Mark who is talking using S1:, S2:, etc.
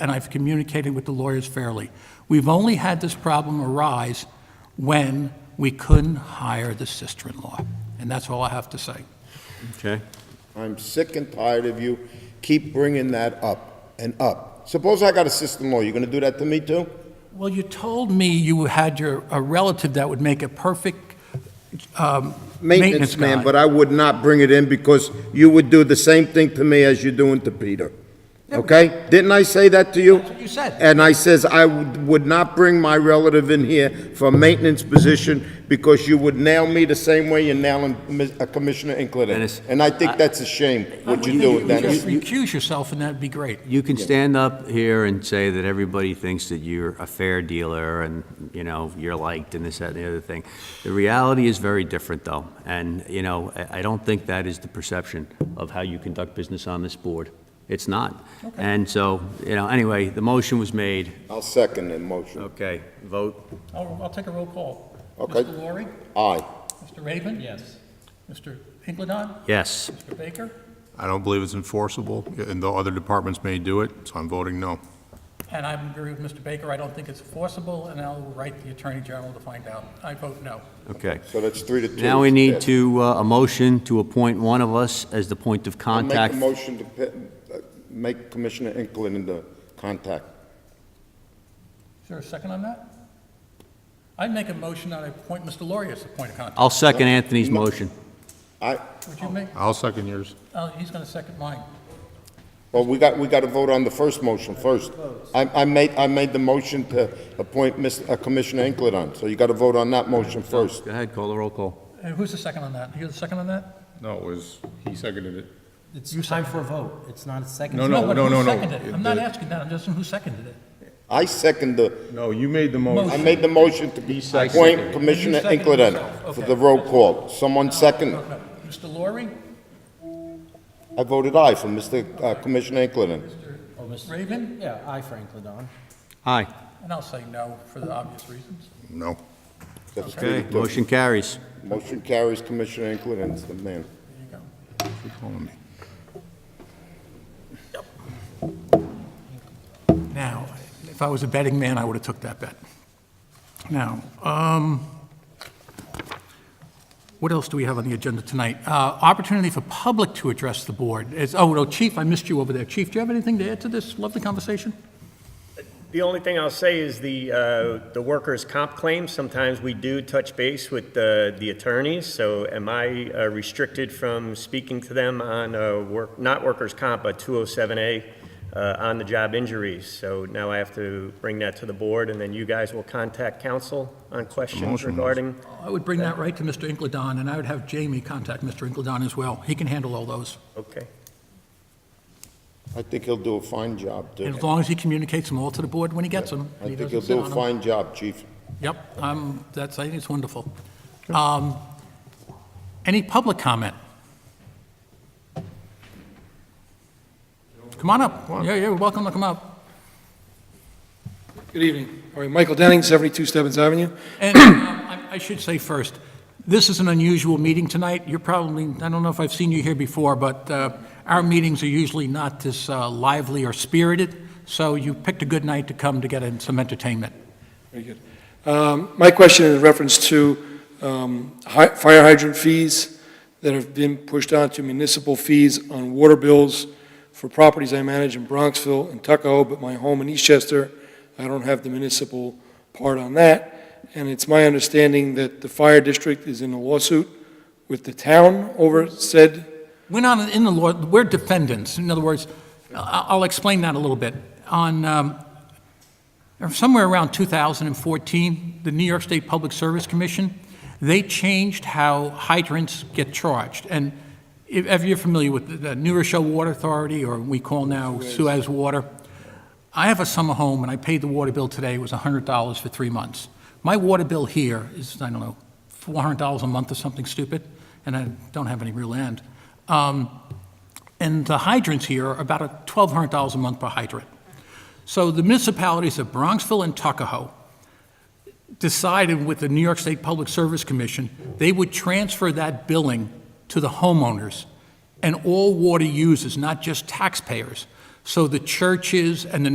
S1: and I've communicated with the lawyers fairly. We've only had this problem arise when we couldn't hire the sister-in-law, and that's all I have to say.
S2: Okay.
S3: I'm sick and tired of you keep bringing that up and up. Suppose I got a sister-in-law, you gonna do that to me too?
S1: Well, you told me you had your, a relative that would make a perfect um, maintenance
S3: Maintenance man, but
S1: guy.
S3: I would not bring it in because you would do the same thing to me as you're doing to Peter. Okay? Didn't I say that to you?
S1: That's what you said.
S3: And I says I would would not bring my relative in here for a maintenance position because you would nail me the same way you're nailing Ms- uh, Commissioner
S2: Dennis,
S3: Inkledon. And I think that's a shame, what you're doing, Dennis.
S1: Just recuse yourself, and that'd be great.
S2: You can stand up here and say that everybody thinks that you're a fair dealer and, you know, you're liked and this, that, and the other thing. The reality is very different, though. And, you know, I, I don't think that is the perception of how you conduct business on this board. It's not. And so, you know, anyway, the motion was made.
S3: I'll second the motion.
S2: Okay, vote.
S1: Oh, I'll, I'll take a roll call.
S3: Okay.
S1: Mr. Laurie?
S3: Aye.
S1: Mr. Raven? Yes. Mr. Inkledon?
S2: Yes.
S1: Mr. Baker?
S4: I don't believe it's enforceable, and though other departments may do it, so I'm voting no.
S1: And I agree with Mr. Baker, I don't think it's enforceable, and I'll write the Attorney General to find out. I vote no.
S2: Okay.
S3: So that's three to two.
S2: Now we
S3: It's
S2: need
S3: passed.
S2: to, uh, a motion to appoint one of us as the point of
S3: I'll Make
S2: contact.
S3: a motion to pe- uh, make Commissioner Inkland into contact.
S1: Is there a second on that? I'd make a motion that I appoint Mr. Laurie as the point of contact.
S2: I'll second Anthony's motion.
S3: I,
S4: Oh.
S1: Would you make,
S4: I'll second yours.
S1: oh, he's going to second mine.
S3: well, we got, we got to vote on the first motion first. I, I made, I made the motion to appoint Miss- uh, Commissioner Inkland on, so you got to vote on that motion first.
S2: Go ahead, call the roll call.
S1: Uh, Who's the second on that? You the second on that?
S4: No, it was, he seconded it.
S5: It's time for a vote. It's not a second.
S4: No, no,
S1: but
S4: no,
S1: who
S4: no, no.
S1: seconded it? I'm not
S4: The-
S1: asking that, I'm just asking who seconded it.
S3: I second the,
S4: No, you Oh, made the
S3: I
S1: motion.
S3: made the motion to appoint Commissioner
S1: You seconded
S3: Inkland
S1: yourself,
S3: for
S1: okay.
S3: the roll call. Someone second,
S1: No, Mr. Laurie,
S3: I voted aye for Mr. uh, Commissioner Inkland.
S5: Oh, Mr.
S1: Raven,
S5: Yeah, I, Frank Ladon.
S2: Aye.
S1: and I'll say no for the obvious reasons.
S4: No.
S3: That's three
S2: Okay,
S3: to two.
S2: motion carries.
S3: Motion carries Commissioner Inkland, the man.
S1: There you go.
S4: You're calling me.
S1: Now, if I was a betting man, I would have took that bet. Now, um, what else do we have on the agenda tonight? Uh, Opportunity for public to address the board. It's- Oh, no, Chief, I missed you over there. Chief, do you have anything to add to this lovely conversation?
S6: The only thing I'll say is the, uh, the workers' comp claims, sometimes we do touch base with the, the attorneys, so am I uh, restricted from speaking to them on, uh, work, not workers' comp, but 207A, uh, on-the-job injuries? So now I have to bring that to the board, and then you guys will contact counsel on questions
S4: Motion.
S6: regarding?
S1: I would bring that right to Mr. Inkledon, and I would have Jamie contact Mr. Inkledon as well. He can handle all those.
S6: Okay.
S3: I think he'll do a fine job, too.
S1: And as long as he communicates them all to the board when he gets them. and
S3: I
S1: he
S3: think he'll
S1: doesn't sit
S3: do
S1: on
S3: a
S1: 'em.
S3: fine job, Chief.
S1: Yep, um, that's, I think it's wonderful. Um, Any public comment? Come on up. Yeah, yeah, you're welcome to come up.
S7: Good evening. All right, Michael Denning, 72 Stebbins Avenue.
S1: And um, I I should say first, this is an unusual meeting tonight. You're probably, I don't know if I've seen you here before, but uh, our meetings are usually not this uh, lively or spirited, so you picked a good night to come to get in some entertainment.
S7: Very good. Um, My question is in reference to um, hy- fire hydrant fees that have been pushed on to municipal fees on water bills for properties I manage in Bronxville and Tuckahoe, but my home in Eastchester, I don't have the municipal part on that. And it's my understanding that the fire district is in a lawsuit with the town over said,
S1: We're not in the law, we're defendants. In other words, I- I'll explain that a little bit. On, um, somewhere around 2014, the New York State Public Service Commission, they changed how hydrants get charged. And if if you're familiar with the- the New Rochelle Water Authority, or we call now Suez Water, I have a summer home and I paid the water bill today, it was $100 for three months. My water bill here is, I don't know, $400 a month or something stupid, and I don't have any real land. Um, And the hydrants here are about a $1,200 a month per hydrant. So the municipalities of Bronxville and Tuckahoe decided with the New York State Public Service Commission, they would transfer that billing to the homeowners and all water users, not just taxpayers. So the churches and the